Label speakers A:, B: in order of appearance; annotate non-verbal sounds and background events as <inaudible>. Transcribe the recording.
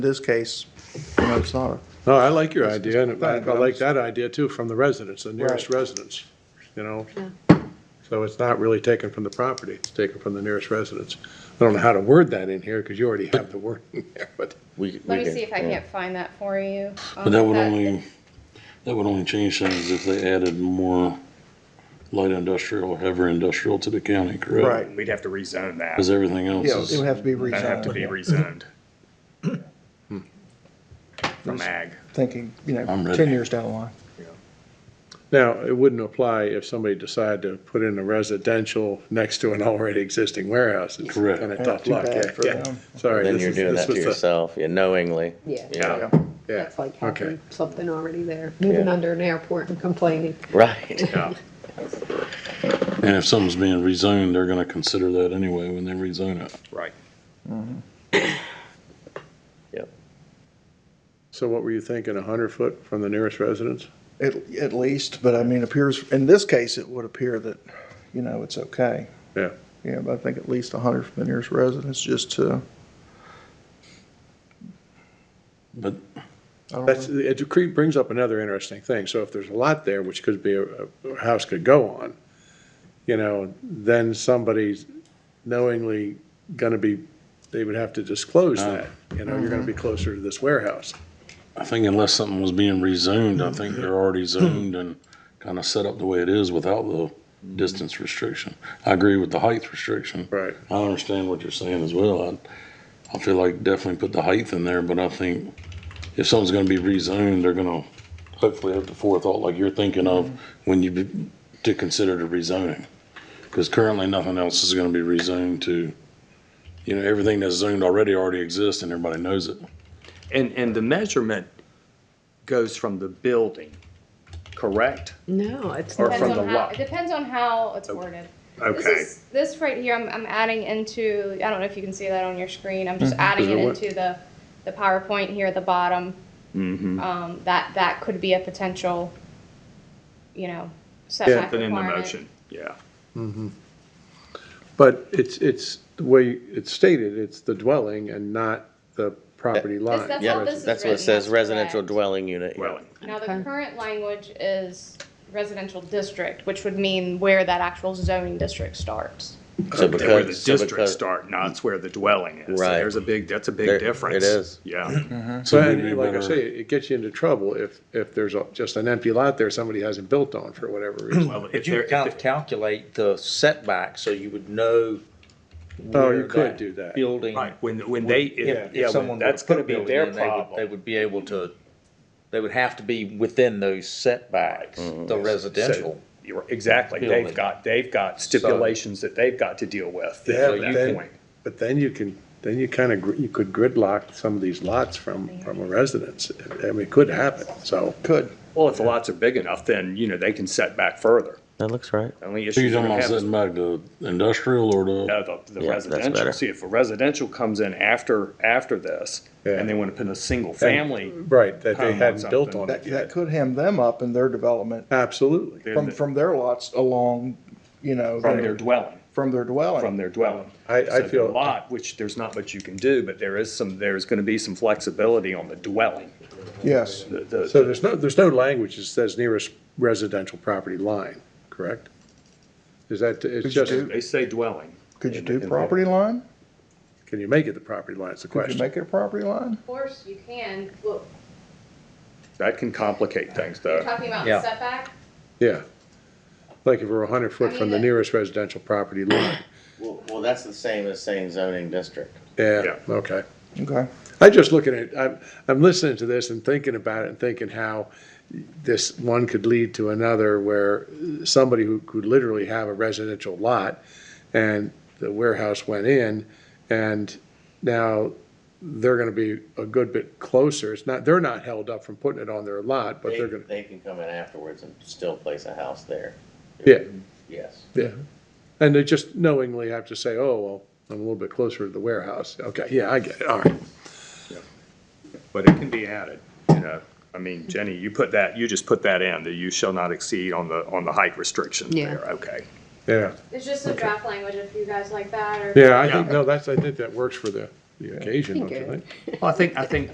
A: this case, you know, it's not.
B: No, I like your idea, and I
A: Right, but
B: I
A: I'm
B: like
A: just-
B: that idea too, from the residents, the nearest
A: Right.
B: residents, you know? So it's not really taken from the property, it's taken from the nearest residents. I don't know how to word that in here, because you already have the word in there, but
C: We,
D: Let
C: we
D: me see if I
C: yeah.
D: can't find that for you. Um,
E: But that would only, that would only change things if they added more light industrial or heavy industrial to the county, correct?
A: Right.
F: We'd have to rezone that.
E: Because everything else
A: Yeah, it
E: is,
A: would have to be
F: That'd have to be
A: rezoned,
F: rezoned.
G: Hmm.
F: From ag.
A: thinking, you
E: I'm
A: know,
E: ready.
A: ten years down the line.
B: now, it wouldn't apply if somebody decided to put in a residential next to an already existing warehouse. It's
E: Correct.
B: Kind of
A: Yeah,
B: tough
A: too
B: luck,
A: bad
B: yeah,
A: for
B: yeah.
A: them.
B: Sorry.
C: Then
B: this
C: you're
B: is-
C: doing
B: this
C: that to
B: was the-
C: yourself, yeah, knowingly.
H: Yeah.
C: Yeah,
B: Yeah,
H: That's like
B: okay.
H: having something already there, moving
C: Yeah.
H: under an airport and complaining.
C: right.
B: Yeah.
E: and if something's being rezoned, they're gonna consider that anyway when they rezone it.
F: Right.
C: Yep.
B: So what were you thinking, a hundred foot from the nearest residence?
A: At, at least, but I mean, appears, in this case, it would appear that, you know, it's okay.
B: Yeah.
A: Yeah, but I think at least a hundred from the nearest residents, just to,
E: But
A: I don't
B: That's,
A: know.
B: it cre- brings up another interesting thing. So if there's a lot there, which could be, a, a house could go on, you know, then somebody's knowingly gonna be, they would have to disclose
E: Ah.
B: that. You know, you're
D: Mm-hmm.
B: gonna be closer to this warehouse.
E: I think unless something was being rezoned, I think they're already zoned and kind of set up the way it is without the distance restriction. I agree with the height restriction.
B: Right.
E: I understand what you're saying as well. I, I feel like definitely put the height in there, but I think if something's gonna be rezoned, they're gonna hopefully have the forethought like you're thinking of when you, be- to consider the rezoning. Cause currently nothing else is gonna be rezoned to, you know, everything that's zoned already, already exists and everybody knows it.
F: And, and the measurement goes from the building, correct?
H: No, it's
F: Or
H: not.
F: from
D: Depends on
F: the
D: how,
F: lot.
D: it depends on how it's worded. This
B: Okay.
D: is, this right here, I'm, I'm adding into, I don't know if you can see that on your screen, I'm just adding it
B: Is it what-
D: into the, the PowerPoint here at the bottom. Um, that, that could be a potential, you know, setback
F: Put in the
D: requirement.
F: motion, yeah.
B: But it's, it's, the way it's stated, it's the dwelling and not the property line.
D: that's
C: Yeah,
D: how this is
C: that's what
D: written,
C: it says,
D: that's
C: residential
D: correct.
C: dwelling unit. yeah.
F: Dwelling.
D: Now, the
H: Okay.
D: current language is residential district, which would mean where that actual zoning district starts.
C: So
F: Where the
C: because, so
F: districts
C: because,
F: start, not where the dwelling is. So
C: Right.
F: There's a big, that's a
C: There-
F: big difference.
C: it is.
F: Yeah.
G: Mm-hmm.
E: So
B: But
E: maybe
B: like I
E: better-
B: say, it gets you into trouble if, if there's a- just an empty lot there somebody hasn't built on for
E: <clears throat>
B: whatever reason.
F: Well, if
G: But you
F: there-
G: could kind of calculate the setback, so you would know.
B: Oh, you
G: where
B: could do that.
G: Building.
F: Right, when, when they,
G: If,
F: if-
G: if
F: yeah,
G: someone
F: when-
G: were
F: that's
G: to put
F: gonna
G: a
F: be
G: building
F: their
G: in, they would- They
F: problem.
G: would be able to, they would have to be within those setbacks,
B: Mm-hmm.
G: the residential.
F: You're- Exactly, they've
G: Building.
F: got, they've got stipulations that they've got to deal with.
B: Yeah,
F: at
B: but
F: that
B: then-
F: point.
B: But then you can, then you kind of, you could gridlock some of these lots from, from a residence. I mean, it could happen, so.
A: Could,
F: Well, if the lots are big enough, then, you know, they can set back further.
C: that looks right.
F: The Only
E: So
F: issue
E: you're
F: you're
E: talking
F: gonna
E: about
F: have is,
E: setting back the industrial or the,
F: no, the, the
C: Yeah, that's better.
F: residential. See, if a residential comes in after, after this,
B: Yeah.
F: and they wanna put a single family,
B: Right, that they
F: Come on,
B: hadn't built
F: something.
B: on
A: that,
B: it
A: that
B: yet.
A: could hem them up in their development
B: Absolutely.
F: then
A: from,
F: the-
A: from their lots along, you know.
F: from their dwelling,
A: From their dwelling.
F: from their dwelling.
B: I- I
F: So the
B: feel-
F: Lot, which there's not much you can do, but there is some, there's gonna be some flexibility on the dwelling.
A: Yes,
F: The- the-
B: So there's no, there's no language that says nearest residential property line, correct? Is that, it's
A: Could
B: just,
A: you
F: They say dwelling.
A: could you do property line?
B: can you make it the property line, is the
A: Could you
B: question.
A: make it a property line?
D: Of course, you can, well,
F: That can complicate things,
D: you're
F: though.
D: talking about
G: Yeah.
D: setback,
B: Yeah. Like if we're a hundred
D: I
B: foot
D: mean,
B: from the
D: it-
B: nearest residential property line.
C: Well, well, that's the same as saying zoning district.
B: Yeah,
F: Yeah.
B: okay.
A: Okay.
B: I just look at it, I'm, I'm listening to this and thinking about it and thinking how this one could lead to another where somebody who could literally have a residential lot and the warehouse went in and now they're gonna be a good bit closer. It's not, they're not held up from putting it on their lot, but
C: They,
B: they're gonna,
C: they can come in afterwards and still place a house there,
B: yeah,
C: yes.
B: yeah. And they just knowingly have to say, oh, well, I'm a little bit closer to the warehouse. Okay, yeah, I get it, all right.
F: But it can be added, you know. I mean, Jenny, you put that, you just put that in, that you shall not exceed on the, on the height restriction
H: Yeah.
F: there, okay.
B: Yeah,
D: it's just some draft language if you guys like that, or.
B: yeah, I think, no, that's, I think that works for the, the occasion, don't
H: Think
B: you
H: it-
B: think?
F: Well, I think, I think